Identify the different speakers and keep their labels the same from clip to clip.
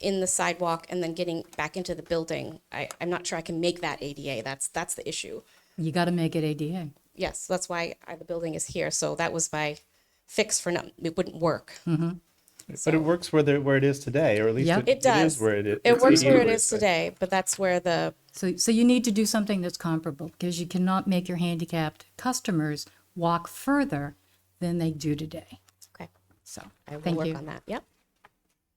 Speaker 1: in the sidewalk and then getting back into the building. I, I'm not sure I can make that ADA. That's, that's the issue.
Speaker 2: You got to make it ADA.
Speaker 1: Yes, that's why I, the building is here. So that was my fix for no, it wouldn't work.
Speaker 3: Hmm.
Speaker 4: But it works where, the, where it is today, or at least
Speaker 2: Yeah.
Speaker 4: it,
Speaker 1: It does.
Speaker 4: it is where it is.
Speaker 1: It works where it
Speaker 4: is
Speaker 1: is today, but that's where the,
Speaker 2: So, so you need to do something that's comparable because you cannot make your handicapped customers walk further than they do today.
Speaker 1: okay,
Speaker 2: So,
Speaker 1: I will
Speaker 2: thank
Speaker 1: work
Speaker 2: you.
Speaker 1: on that. Yep.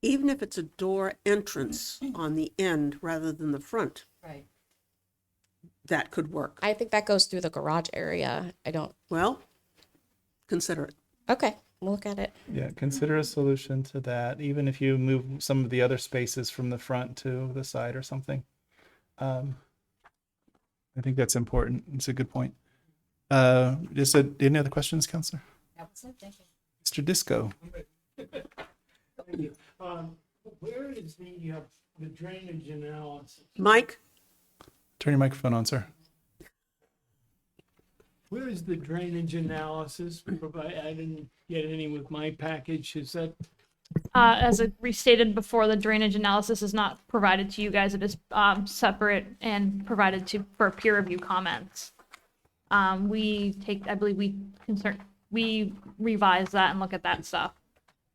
Speaker 5: even if it's a door entrance on the end rather than the front,
Speaker 2: Right.
Speaker 5: that could work.
Speaker 1: I think that goes through the garage area. I don't,
Speaker 5: Well, consider it.
Speaker 1: okay, we'll look at it.
Speaker 4: Yeah, consider a solution to that, even if you move some of the other spaces from the front to the side or something. Um, I think that's important. It's a good point. Uh, is there any other questions, Counselor? Mr. Disco?
Speaker 3: Um, where is the, uh, the drainage analysis?
Speaker 5: Mike,
Speaker 4: Turn your microphone on, sir.
Speaker 3: Where is the drainage analysis? Provide, I didn't get any with my package. Is that,
Speaker 6: Uh, as I restated before, the drainage analysis is not provided to you guys. It is um, separate and provided to for peer review comments. Um, we take, I believe, we concern, we revise that and look at that stuff.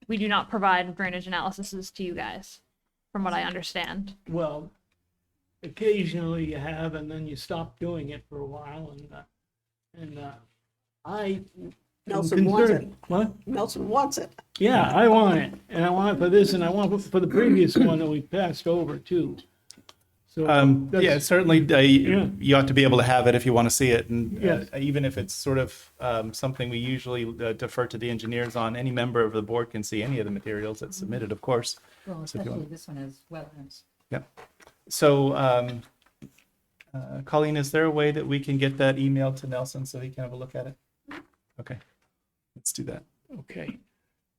Speaker 6: We do not provide drainage analyses to you guys, from what I understand.
Speaker 3: well, occasionally you have, and then you stop doing it for a while and, uh, and, uh, I. am
Speaker 5: Nelson wants it.
Speaker 3: concerned- What?
Speaker 5: Nelson wants it.
Speaker 3: Yeah, I want it. And I want it for this and I want it for the previous one that we passed over too. So.
Speaker 4: Um,
Speaker 3: that's-
Speaker 4: yeah, certainly uh,
Speaker 3: Yeah.
Speaker 4: you ought to be able to have it if you want to see it. And uh,
Speaker 3: Yes.
Speaker 4: even if it's sort of um, something we usually uh, defer to the engineers on, any member of the board can see any of the materials that's submitted, of course.
Speaker 2: Well,
Speaker 4: So if you want-
Speaker 2: especially this one has wetlands.
Speaker 4: Yep. So, um, uh, Colleen, is there a way that we can get that email to Nelson so he can have a look at it? Okay, let's do that.
Speaker 3: Okay.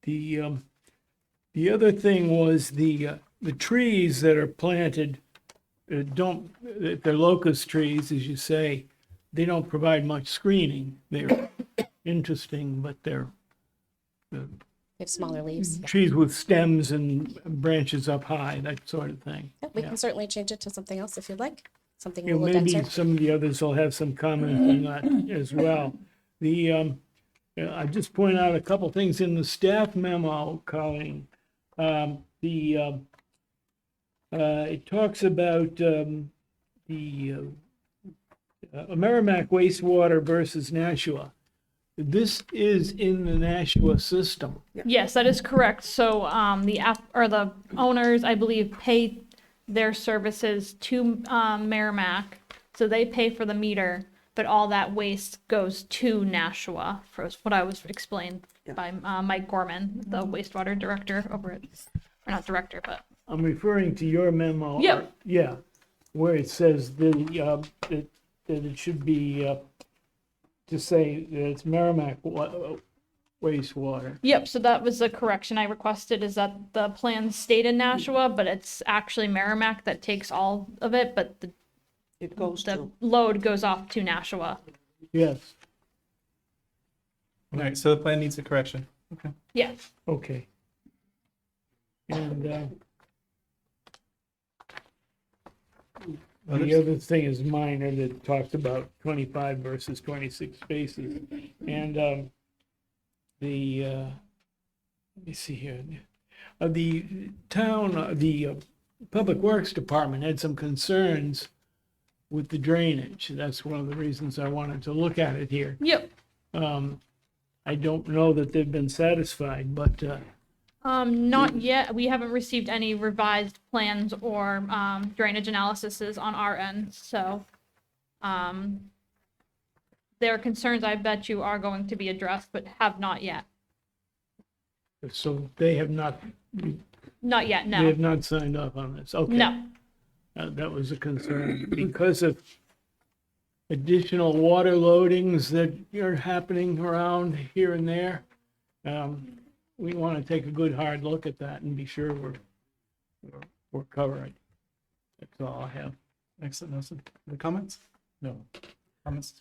Speaker 3: The, um, the other thing was the, uh, the trees that are planted, uh, don't, they're locust trees, as you say. They don't provide much screening. They're interesting, but they're
Speaker 1: We have smaller leaves.
Speaker 3: trees with stems and branches up high, that sort of thing.
Speaker 1: Yep, we
Speaker 3: Yeah.
Speaker 1: can certainly change it to something else if you'd like, something a
Speaker 3: You know,
Speaker 1: little
Speaker 3: maybe
Speaker 1: denser.
Speaker 3: some of the others will have some comment on that as well. The, um, uh, I just point out a couple things in the staff memo, Colleen. Um, the, um, uh, it talks about, um, the, uh, uh, Merrimack wastewater versus Nashua. This is in the Nashua system.
Speaker 6: Yes, that is correct. So um, the app or the owners, I believe, pay their services to um, Merrimack. So they pay for the meter, but all that waste goes to Nashua. For what I was explained by uh, Mike Gorman, the
Speaker 5: Mm-hmm.
Speaker 6: wastewater director over at, or not director, but
Speaker 3: I'm referring to your memo.
Speaker 6: Yeah.
Speaker 3: Yeah, where it says the, uh, that, that it should be, uh, to say that it's Merrimack wa- uh, wastewater.
Speaker 6: Yep, so that was the correction I requested is that the plan stayed in Nashua, but it's actually Merrimack that takes all of it, but the,
Speaker 5: It goes
Speaker 6: the
Speaker 5: to,
Speaker 6: load goes off to Nashua.
Speaker 3: Yes,
Speaker 4: All right, so the plan needs a correction.
Speaker 6: Yes.
Speaker 3: okay. And, uh, the
Speaker 4: Others?
Speaker 3: other thing is minor that talks about twenty-five versus twenty-six spaces. And, um, the, uh, let me see here. Uh, the town, uh, the uh, Public Works Department had some concerns with the drainage. That's one of the reasons I wanted to look at it here.
Speaker 6: Yep.
Speaker 3: Um, I don't know that they've been satisfied, but, uh,
Speaker 6: Um, not yet. We haven't received any revised plans or um, drainage analyses on our end, so um, their concerns, I bet you, are going to be addressed, but have not yet.
Speaker 3: so they have not, they
Speaker 6: Not yet. No.
Speaker 3: have not signed off on this. Okay.
Speaker 6: No.
Speaker 3: Uh, That was a concern because of additional water loadings that are happening around here and there. Um, We want to take a good hard look at that and be sure we're, we're- we're covering. That's all I have.
Speaker 4: Excellent, Nelson. Any comments? No. Comments?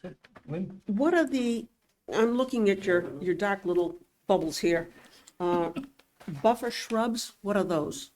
Speaker 4: Lynn?
Speaker 5: what are the, I'm looking at your, your dark little bubbles here. Uh, Buffer shrubs, what are those?